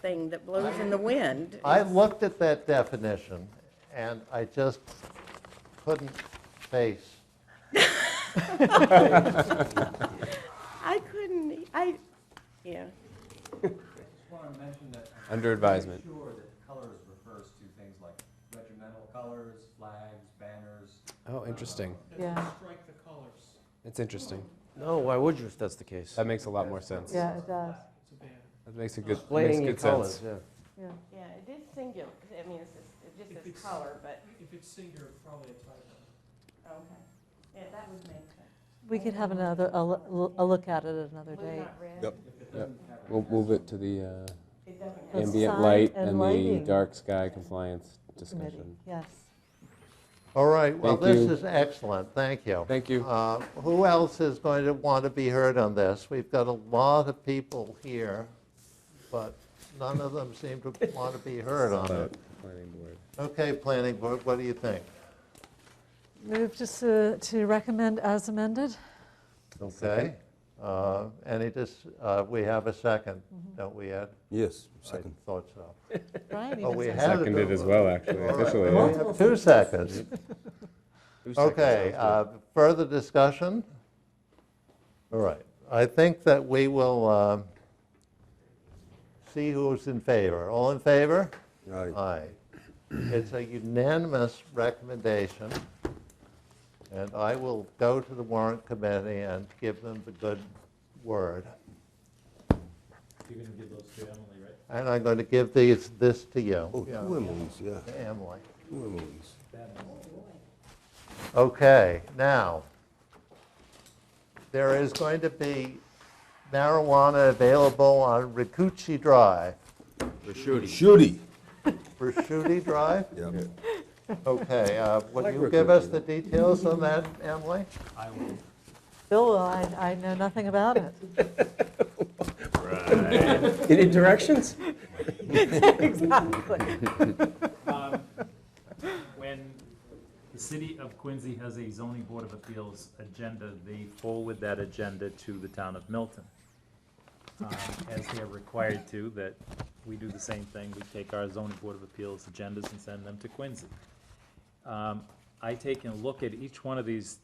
thing that blows in the wind. I looked at that definition, and I just couldn't face, I couldn't, e, I, yeah, Just want to mention that. I'm Under advisement. pretty Sure that colors refers to things like regimental colors, flags, banners. uh, Oh, interesting. Yeah, Strike the colors. It's interesting. No, why would you if that's the case? That makes a lot more sense. yeah, it does, It's a banner. That makes a good, makes Displaying your good sense. colors, yeah. yeah. yeah, it is singular, I mean, it's just, it If just it's- says color, but, If it's singular, probably a typo. okay. Yeah, that would make sense. We could have another, a lo- a look at it another Blue day. not red. Yep. If it doesn't have a We'll move it to the uh, It doesn't That's have. ambient sign light and and the lighting. dark sky compliance Committee, discussion. yes. all right, well, Thank this you. is excellent, thank you. Thank you. Uh, Who else is going to want to be heard on this? We've got a lot of people here, but none of them seem to want to be heard on it. Planning board. Okay, planning board, what do you think? Move just to to recommend as amended? Okay? Uh, Any, dis- uh, we have a second, Mm-hmm. don't we, Ed? Yes, I thought so. Brian Oh, even we said- have- Seconded as well, actually, All right, officially. well, we have Two seconds. Okay, uh, further discussion? All right, I think that we will um, see who's in favor. All in favor? Aye. It's a unanimous recommendation, and I will go to the warrant committee and give them the good word. You're gonna give those to Emily, right? And I'm going to give these, this to you. Oh, two Yeah, Emmys, yeah, to Emily. two Emmys. Okay, now, there is going to be marijuana available on Rikuchi Drive, Shooty. Rikuchi Drive? Yeah. Okay, uh, would Like you give us Rikuchi. the details on that, Emily? Bill, I, I know nothing about it. Any directions? Exactly. When the city of Quincy has a zoning board of appeals agenda, they forward that agenda to the town of Milton. um, As they are required to, that we do the same thing, we take our zoning board of appeals agendas and send them to Quincy. Um, I take and look at each one of these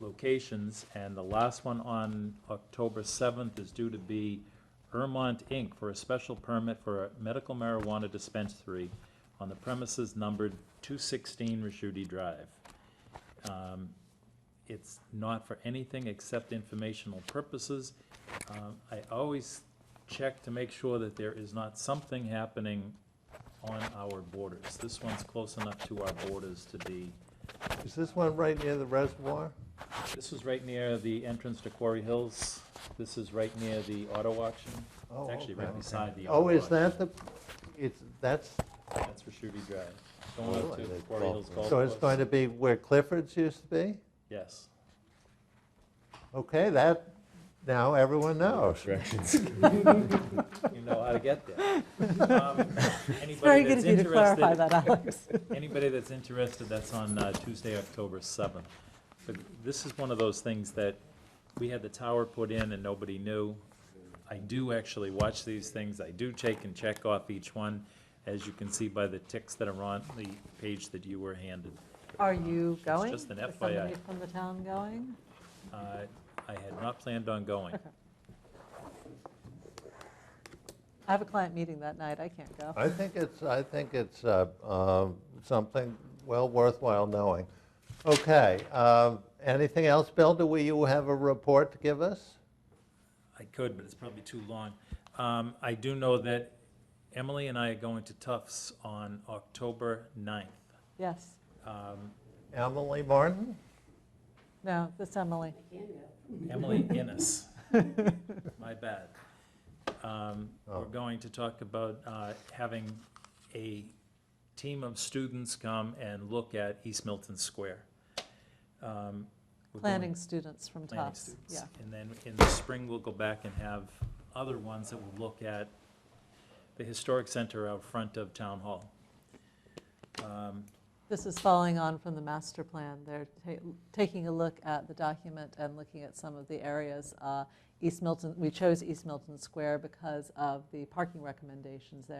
locations, and the last one on October seventh is due to be Ermont Inc. for a special permit for a medical marijuana dispensary on the premises numbered two sixteen Rashudi Drive. Um, It's not for anything except informational purposes. Um, I always check to make sure that there is not something happening on our borders. This one's close enough to our borders to be, Is this one right near the reservoir? this is right near the entrance to Quarry Hills. This is right near the auto auction. Oh, It's actually okay, right okay. beside the auto Oh, auction. is that the, it's, that's, That's for Shooty Drive. Going up to Really? Quarry Hills Golf Course. so it's going to be where Clifford's used to be? Yes. Okay, that, now everyone knows. Directions. You know how to get there. Um, It's Very good of you to clarify that, Alex. Anybody that's interested, that's on uh, Tuesday, October 7th. But this is one of those things that we had the tower put in and nobody knew. I do actually watch these things. I do take and check off each one, as you can see by the ticks that are on the page that you were handed. Are you going? just an Is somebody FYI. from the town going? Uh, I had not planned on going. I have a client meeting that night, I can't go. I think it's, I think it's uh, um, something well worthwhile knowing. Okay, um, anything else, Bill? Do we, you have a report to give us? I could, but it's probably too long. Um, I do know that Emily and I are going to Tufts on October 9th. Yes, Um, Emily Martin? no, that's Emily. Emily Innes. My bad. Um, We're going to talk about uh, having a team of students come and look at East Milton Square. Um, we're going- Planning students from planning Tufts, students. yeah. And then in the spring, we'll go back and have other ones that will look at the historic center out front of Town Hall. Um, This is following on from the master plan. They're ta- taking a look at the document and looking at some of the areas. Uh, East Milton, we chose East Milton Square because of the parking recommendations there.